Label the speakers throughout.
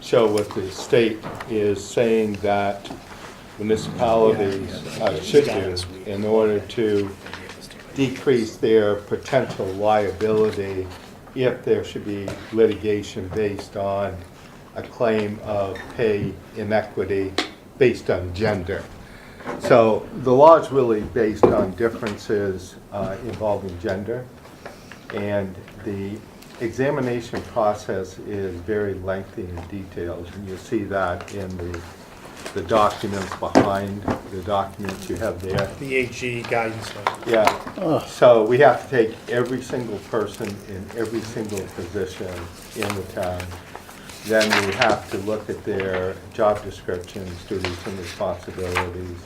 Speaker 1: show what the state is saying that municipalities uh, should do in order to decrease their potential liability if there should be litigation based on a claim of pay inequity based on gender. So the law is really based on differences uh, involving gender. And the examination process is very lengthy and detailed, and you'll see that in the, the documents behind, the documents you have there.
Speaker 2: The AG guidance letter.
Speaker 1: Yeah, so we have to take every single person in every single position in the town. Then we have to look at their job descriptions, duties and responsibilities,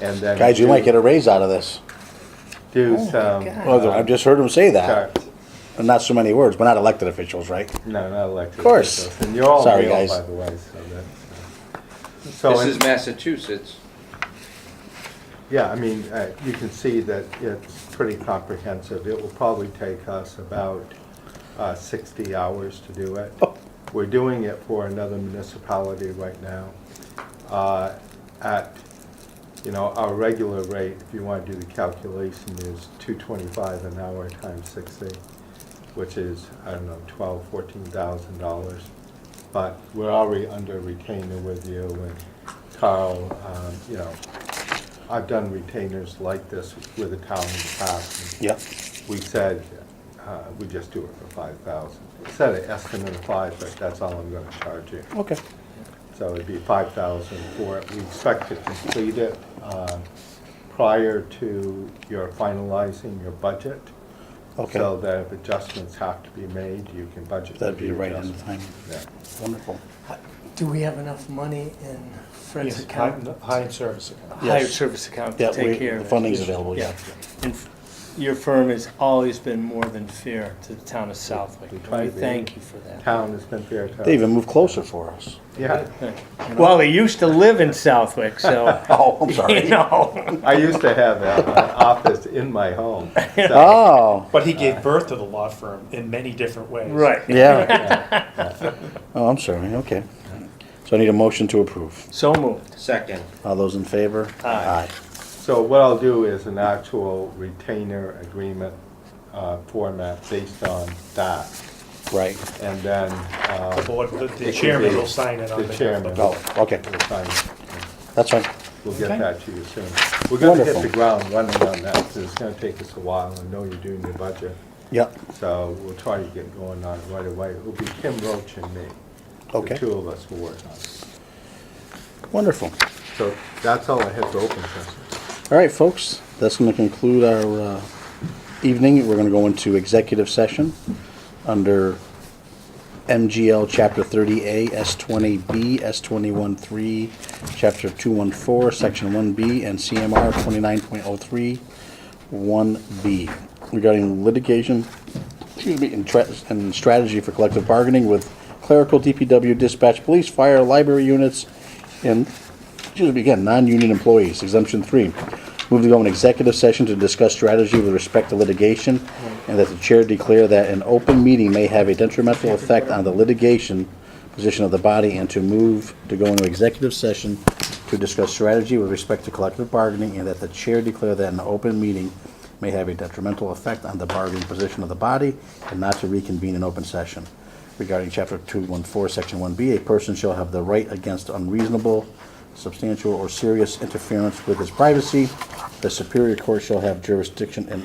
Speaker 1: and then.
Speaker 3: Guys, you might
Speaker 1: do-
Speaker 3: get a raise out of this.
Speaker 1: Do some.
Speaker 3: Well,
Speaker 1: uh,
Speaker 3: I've just heard him say
Speaker 1: sorry,
Speaker 3: that. Not so many words. We're not elected officials, right?
Speaker 1: No, not elected.
Speaker 3: Of course.
Speaker 1: officials. And you're all
Speaker 3: Sorry,
Speaker 1: male,
Speaker 3: guys.
Speaker 1: by the way, so that's. uh, so
Speaker 4: This
Speaker 1: in-
Speaker 4: is Massachusetts.
Speaker 1: Yeah, I mean, uh, you can see that it's pretty comprehensive. It will probably take us about uh, 60 hours to do it.
Speaker 3: Oh.
Speaker 1: We're doing it for another municipality right now uh, at, you know, our regular rate, if you want to do the calculation, is 225 an hour times 60, which is, I don't know, 12, 14,000 dollars. But we're already under retainer with you and Carl, um, you know, I've done retainers like this with the town in the past.
Speaker 3: Yep.
Speaker 1: We said, uh, we just do it for five thousand. Set an estimate of five, but that's all I'm gonna charge you.
Speaker 3: Okay.
Speaker 1: So it'd be five thousand for it. We expect to complete it, uh, prior to your finalizing your budget.
Speaker 3: Okay.
Speaker 1: So that if adjustments have to be made, you can budget.
Speaker 3: That'd
Speaker 1: for
Speaker 3: be
Speaker 1: the
Speaker 3: right on
Speaker 1: adjustment.
Speaker 3: time.
Speaker 1: Yeah.
Speaker 3: Wonderful.
Speaker 5: Do we have enough money in Fred's account?
Speaker 2: Hired service account.
Speaker 3: Yes.
Speaker 6: hired service account
Speaker 3: Yeah,
Speaker 6: to
Speaker 3: we-
Speaker 6: take care
Speaker 3: the
Speaker 6: of it.
Speaker 3: funding's available, yeah.
Speaker 6: And f- your firm has always been more than fair to the town of Southwick.
Speaker 1: We try
Speaker 6: and We
Speaker 1: to be.
Speaker 6: thank you for that.
Speaker 1: Town has been fair to us.
Speaker 3: They even moved closer for us.
Speaker 1: Yeah.
Speaker 6: Well, they used to live in Southwick, so,
Speaker 3: Oh, I'm
Speaker 6: you
Speaker 3: sorry.
Speaker 6: know.
Speaker 1: I used to have an office in my home. so-
Speaker 3: Oh,
Speaker 2: But he
Speaker 1: Uh,
Speaker 2: gave birth to the law firm in many different ways.
Speaker 6: Right.
Speaker 3: yeah. Oh, I'm sorry. Okay. So I need a motion to approve.
Speaker 6: So moved.
Speaker 4: Second.
Speaker 3: All those in favor?
Speaker 6: Aye.
Speaker 1: So what I'll do is an actual retainer agreement uh, format based on that,
Speaker 3: Right.
Speaker 1: and then uh,
Speaker 2: The board, the-
Speaker 1: It
Speaker 2: the
Speaker 1: could
Speaker 2: chairman
Speaker 1: be
Speaker 2: will sign it on
Speaker 1: the
Speaker 2: behalf
Speaker 1: chairman.
Speaker 2: of the
Speaker 3: Oh, okay.
Speaker 1: we'll sign it.
Speaker 3: That's fine.
Speaker 1: We'll get that to you soon. We're gonna hit the
Speaker 3: Wonderful.
Speaker 1: ground running on that, 'cause it's gonna take us a while, I know you're doing your budget,
Speaker 3: Yep.
Speaker 1: so we'll try to get going on it right away. It'll be Kim Roach and me.
Speaker 3: Okay.
Speaker 1: The two of us will work on it.
Speaker 3: Wonderful.
Speaker 1: So that's all I have to open session.
Speaker 3: All right, folks, that's going to conclude our uh, evening. We're going to go into executive session under MGL Chapter 30A, S20B, S213, Chapter 214, Section 1B, and CMR 29.03, 1B, regarding litigation, excuse me, and tra- and strategy for collective bargaining with clerical, DPW, dispatch, police, fire, library units, and excuse me, again, non-union employees, exemption three. Move to go in executive session to discuss strategy with respect to litigation, and that the chair declare that an open meeting may have a detrimental effect on the litigation position of the body, and to move to go into executive session to discuss strategy with respect to collective bargaining, and that the chair declare that an open meeting may have a detrimental effect on the bargaining position of the body, and not to reconvene in open session regarding chapter two one four, section one B, a person shall have the right against unreasonable, substantial, or serious interference with his privacy. The superior court shall have jurisdiction in